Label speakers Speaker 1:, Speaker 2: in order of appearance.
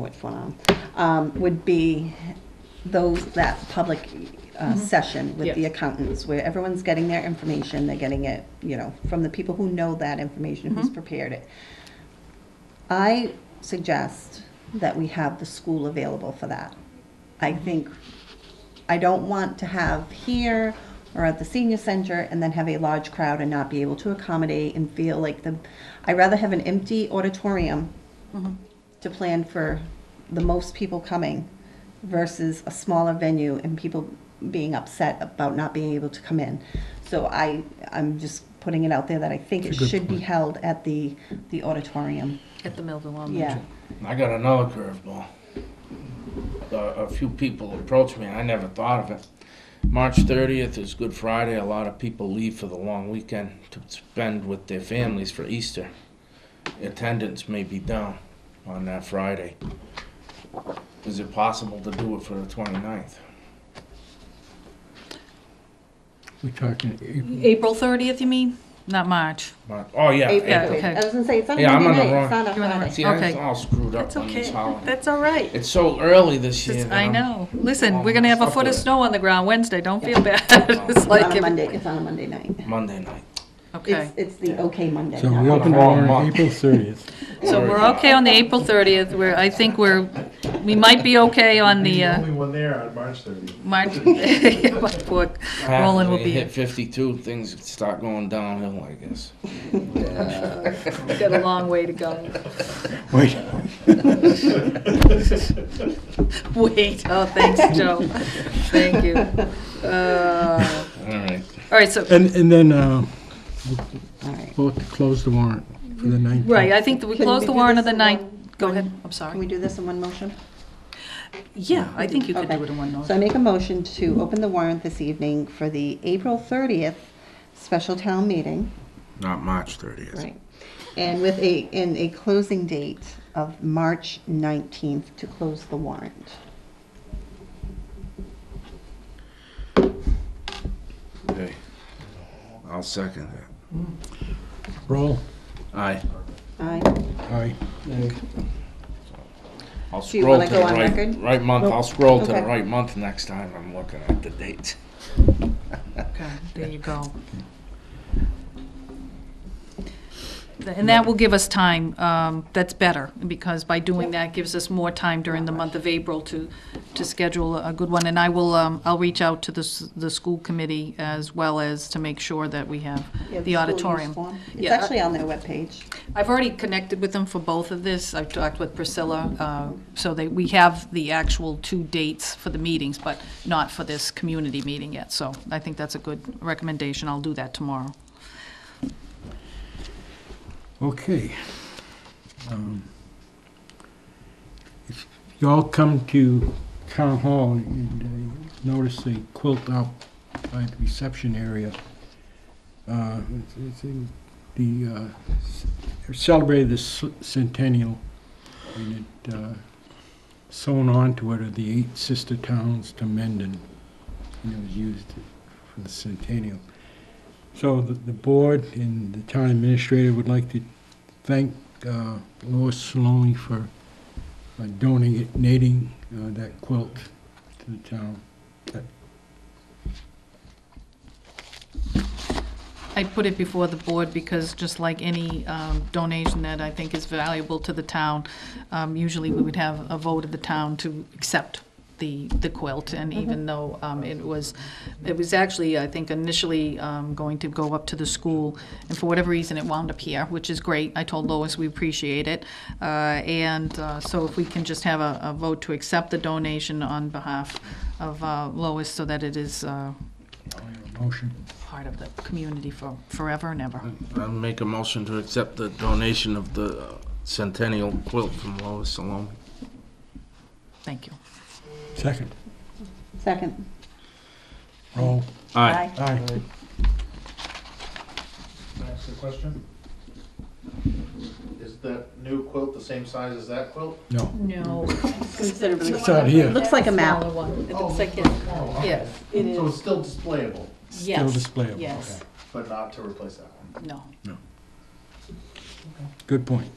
Speaker 1: what's going on, um, would be those, that public uh, session with the
Speaker 2: Yes.
Speaker 1: accountants, where everyone's getting their information, they're getting it, you know, from the people who know that information, who's prepared it. I suggest that we have the school available for that. I think, I don't want to have here or at the senior center and then have a large crowd and not be able to accommodate and feel like the, I'd rather have an empty auditorium to plan for the most people coming versus a smaller venue and people being upset about not being able to come in. So I, I'm just putting it out there that I think it
Speaker 3: It's a good
Speaker 1: should be held at the, the auditorium.
Speaker 2: At the Millville Elementary.
Speaker 1: Yeah.
Speaker 4: I got another curveball. A, a few people approached me, and I never thought of it. March 30th is Good Friday. A lot of people leave for the long weekend to spend with their families for Easter. Attendance may be down on that Friday. Is it possible to do it for the 29th?
Speaker 3: We're talking April.
Speaker 2: April 30th, you mean? Not March.
Speaker 4: Mar- Oh, yeah.
Speaker 2: Yeah,
Speaker 4: April.
Speaker 2: okay.
Speaker 1: I was gonna say, it's not a
Speaker 4: Yeah, I'm
Speaker 1: Monday
Speaker 4: on the
Speaker 1: night,
Speaker 4: wrong-
Speaker 1: it's not a
Speaker 2: You're on the
Speaker 1: Friday.
Speaker 4: See,
Speaker 2: Okay.
Speaker 4: I'm all screwed up on these holidays.
Speaker 2: That's all right.
Speaker 4: It's so early this year.
Speaker 2: Just-
Speaker 4: that
Speaker 2: I
Speaker 4: I'm-
Speaker 2: know. Listen,
Speaker 4: I'm
Speaker 2: we're gonna have a
Speaker 4: stuck
Speaker 2: foot of
Speaker 4: with it.
Speaker 2: snow on the ground Wednesday. Don't feel bad. It's
Speaker 1: It's on
Speaker 2: like,
Speaker 1: a
Speaker 2: if-
Speaker 1: Monday, it's on a Monday night.
Speaker 4: Monday night.
Speaker 2: okay.
Speaker 1: It's, it's the okay Monday.
Speaker 3: So
Speaker 1: not
Speaker 3: we
Speaker 1: the
Speaker 3: opened it
Speaker 4: wrong
Speaker 3: on
Speaker 4: month.
Speaker 3: April 30th.
Speaker 2: So we're okay on the April 30th. We're, I think we're, we might be okay on the,
Speaker 5: He's
Speaker 2: uh,
Speaker 5: the only one there on March 30th.
Speaker 2: March. Yeah, my Poor Roland will
Speaker 4: After
Speaker 2: be,
Speaker 4: you hit 52, things start going downhill, I guess.
Speaker 2: we've got a long way to go.
Speaker 3: Wait,
Speaker 2: Wait, oh, thanks, Joe. Thank you. Uh,
Speaker 4: All right.
Speaker 2: All right, so
Speaker 3: and, and then, uh,
Speaker 1: All right.
Speaker 3: vote to close the warrant for the 19th.
Speaker 2: Right, I think that we
Speaker 1: Can
Speaker 2: close
Speaker 1: we
Speaker 2: the
Speaker 1: do
Speaker 2: warrant on
Speaker 1: this
Speaker 2: the
Speaker 1: in
Speaker 2: ninth.
Speaker 1: one-
Speaker 2: Go
Speaker 1: one-
Speaker 2: ahead, I'm
Speaker 1: Can we
Speaker 2: sorry.
Speaker 1: do this in one motion?
Speaker 2: Yeah, I think you could
Speaker 1: Okay.
Speaker 2: do it in one
Speaker 1: So I
Speaker 2: motion.
Speaker 1: make a motion to open the warrant this evening for the April 30th special town meeting,
Speaker 4: Not March 30th.
Speaker 1: right? And with a, in a closing date of March 19th to close the warrant.
Speaker 4: Okay. I'll second that.
Speaker 3: Roll.
Speaker 4: Aye.
Speaker 1: Aye.
Speaker 3: Aye.
Speaker 4: I'll
Speaker 1: Do you
Speaker 4: scroll
Speaker 1: wanna
Speaker 4: to the
Speaker 1: go on
Speaker 4: right,
Speaker 1: record?
Speaker 4: right month. I'll scroll to the
Speaker 1: Okay.
Speaker 4: right month next time I'm looking at the dates.
Speaker 2: Okay, There you go. And that will give us time, um, that's better, because by doing that gives us more time during the month of April to, to schedule a good one. And I will, um, I'll reach out to the, s- the school committee as well as to make sure that we have the auditorium.
Speaker 1: It's
Speaker 2: Yeah.
Speaker 1: actually on their webpage.
Speaker 2: I've already connected with them for both of this. I've talked with Priscilla, uh, so that we have the actual two dates for the meetings, but not for this community meeting yet. So I think that's a good recommendation. I'll do that tomorrow.
Speaker 3: Okay. Um, If y'all come to Town Hall, you'd uh, notice a quilt out by the reception area. Uh, it's- it's in The, uh, s- they celebrated the c- centennial, and it, uh, sewn onto it are the eight sister towns to Mendon, and it was used for the centennial. So the, the board and the town administrator would like to thank uh, Lois Saloni for uh, donating uh, that quilt to the town.
Speaker 2: I put it before the board because just like any um, donation that I think is valuable to the town, um, usually we would have a vote of the town to accept the, the quilt. And even though um, it was, it was actually, I think initially um, going to go up to the school, and for whatever reason, it wound up here, which is great. I told Lois we appreciate it. Uh, And uh, so if we can just have a, a vote to accept the donation on behalf of uh, Lois so that it is uh,
Speaker 3: Motion.
Speaker 2: part of the community for forever and ever.
Speaker 4: I'll make a motion to accept the donation of the uh, centennial quilt from Lois Salome.
Speaker 2: Thank you.
Speaker 3: Second.
Speaker 1: Second.
Speaker 3: Roll.
Speaker 4: Aye.
Speaker 3: Aye.
Speaker 5: Can I ask a question? Is that new quilt the same size as that quilt?
Speaker 3: No.
Speaker 2: No.
Speaker 1: Considerably.
Speaker 3: It's out here.
Speaker 1: Looks like a map.
Speaker 2: Smaller one. It
Speaker 5: Oh,
Speaker 2: looks like, it.
Speaker 5: Oh, okay.
Speaker 2: yes, it
Speaker 5: So
Speaker 2: is.
Speaker 5: it's still displayable,
Speaker 2: Yes.
Speaker 3: displayable,
Speaker 2: Yes,
Speaker 5: but not to replace that one?
Speaker 2: no.
Speaker 3: Good point.